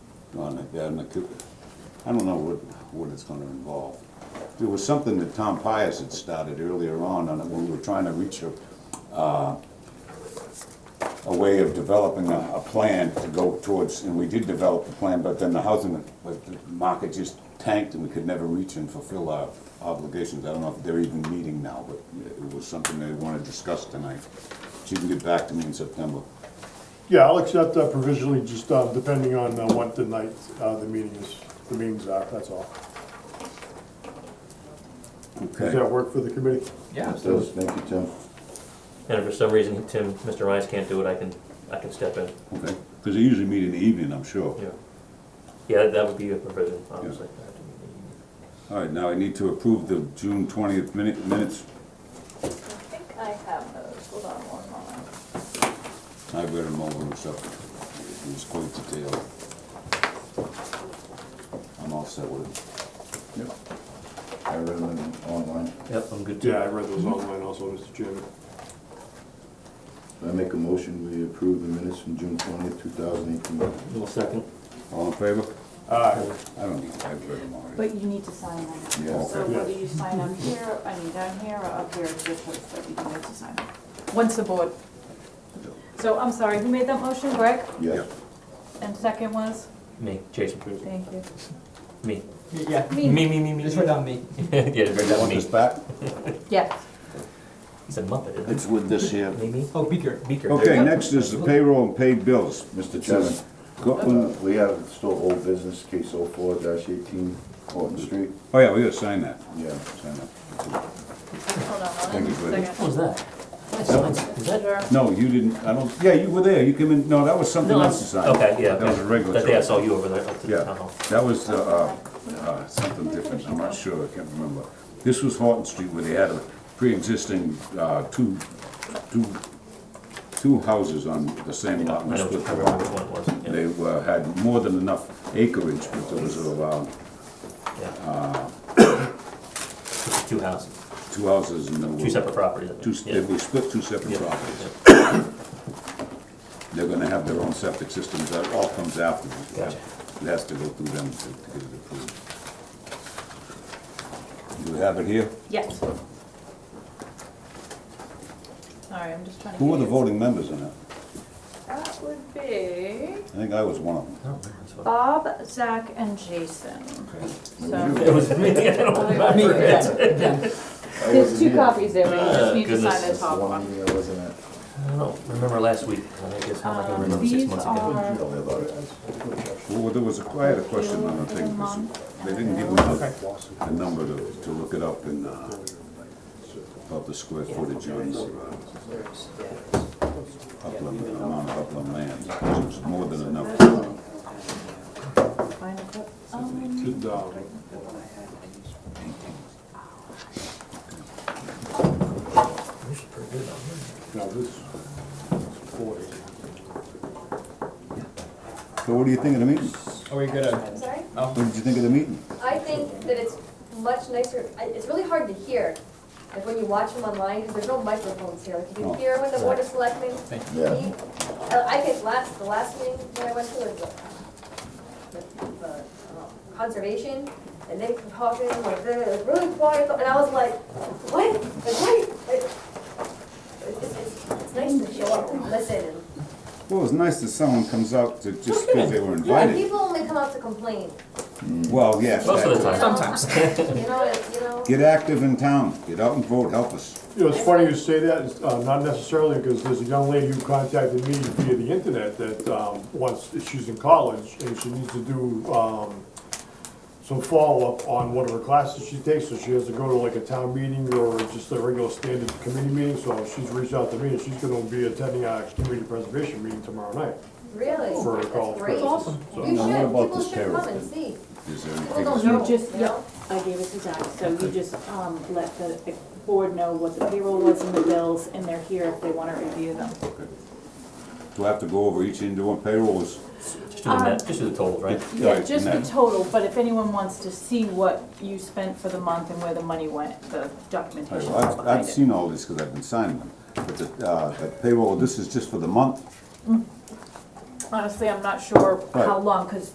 on the, on the, coo- I don't know what, what it's gonna involve. There was something that Tom Pius had started earlier on, on it, when we were trying to reach a, uh, a way of developing a, a plan to go towards, and we did develop the plan, but then the housing, but the market just tanked and we could never reach and fulfill our obligations. I don't know if they're even meeting now, but it was something they wanna discuss tonight. She can get back to me in September. Yeah, I'll accept that provisionally, just uh, depending on uh, what the night, uh, the meeting is, the meetings are, that's all. Does Okay. that work for the committee? Yeah. That does, thank you, Tim. And if for some reason Tim, Mr. Ryan's can't do it, I can, I can step in, Okay, cause they usually meet in the evening, I'm sure. yeah. Yeah, that would be a provision, obviously. All right, now I need to approve the June twentieth minute, minutes. I think I have those, hold on one moment. I read them over myself. It was quite detailed. I'm all set with it. Yep. I read them online. Yep, I'm good Yeah, I read those online also, Mr. Chairman. I make a motion, we approve the minutes from June twentieth, two thousand eighteen. Well, second. All in favor? Aye. I don't need, I've read them already. But you need to sign them. Yeah. So Okay. whether you sign up here, I mean down here or up here, it's your choice, but you need to sign. Once the board. So I'm sorry, who made that motion, Greg? Yes. And second was? Me, Jason Cruiser. Thank you. Me. Yeah, Me. Me, me, me, me. just write down me. Yeah, very You down want me. this back? Yes. He's a Muppet, isn't It's with this here. he? Me, me. Oh, Beaker. Beaker. there you Okay, go. next is the payroll and paid bills. Mr. Chairman, Go- uh, we have still old business, case oh four dash eighteen, Horton Street. Oh, yeah, we gotta sign that. Yeah. Sign that. Hold on Thank you, one Greg. What second. was that? That's, that's, is that? Sure. No, you didn't, I don't, yeah, you were there, you came in, no, that was something No, else to that's, sign. okay, yeah. That was a regular. That day I saw you over there, up to the town Yeah, hall. that was, uh, uh, something different, I'm not sure, I can't remember. This was Horton Street where they had a pre-existing, uh, two, two, two houses on the same Yeah, lot. I and know, I split the remember lot. which one it was, They were, had more than enough acreage, but there was uh, allowed yeah, yeah. uh, Just Two houses, two houses and there were. two separate properties. I think. Two, they Yeah. we split two separate Yeah. properties. They're gonna have their own septic systems, that all comes afterwards. Gotcha. It has to go through them to to get it approved. You have it here? Yes. Sorry, I'm just trying to. Who were the get you- voting members in it? That would be I think I was one of them. I don't remember this one. Bob, Zach, and Jason. So. It was me, I don't Me, remember yeah. it. I There's wasn't two here. copies there, but you Ah, just need to goodness. sign the Uh, That's the top one one. meeting I wasn't at. I don't remember last week, I guess how am I gonna Um, remember six these months are- ago? Don't tell me about it. Well, there was a, I had a question on the thing, 'cause they didn't give me the, the number to, to look it up in, uh, about the square footage on the, uh, upland, amount of upland land, which was more than enough. Find a clip. Did, um, This is pretty good, though. Now, this is four. So what do you think of the meeting? Are we gonna? I'm sorry? What did you think of the meeting? I think that it's much nicer, I- it's really hard to hear, like when you watch them online, because there's no microphones here, like you Oh. can hear when the board is selecting. Yeah. uh, I think last, the last meeting that I went to was uh, the- the, the, uh, conservation, and they were talking like they were really quiet, and I was like, what? Like, why? Like, It's, it's, it's nice to show up and listen and Well, it's nice that someone comes out to, just because they were Yeah, invited. people only come out to complain. Well, yes. Most of the you know? time. Sometimes. You know, it's- you know. Get active in town, get out and vote, help us. You know, it's funny you say that, it's, uh, not necessarily, because there's a young lady who contacted me via the internet that, um, wants, she's in college, and she needs to do, um, some follow-up on one of her classes she takes, so she has to go to like a town meeting or just a regular standard committee meeting, so she's reached out to me, and she's gonna be attending our community preservation meeting tomorrow night. Really? For a call. Oh, That's great. That's awesome. So You now what should, about people this should terror come and see. Is there People anything? don't else? know, You just, you yep, know? I gave it to Zach, so you just, um, let the board know what the payroll was and the bills, and they're here if they wanna review them. Okay. Do I have to go over each individual payrolls? Just do Um, the net, just do the totals, right? Yeah, Yeah, just the no. total, but if anyone wants to see what you spent for the month and where the money went, the documentation Well, is I've, I've behind it. seen all this because I've been signing them, but the, uh, the payroll, this is just for the month? Honestly, I'm not sure how Right. long, cause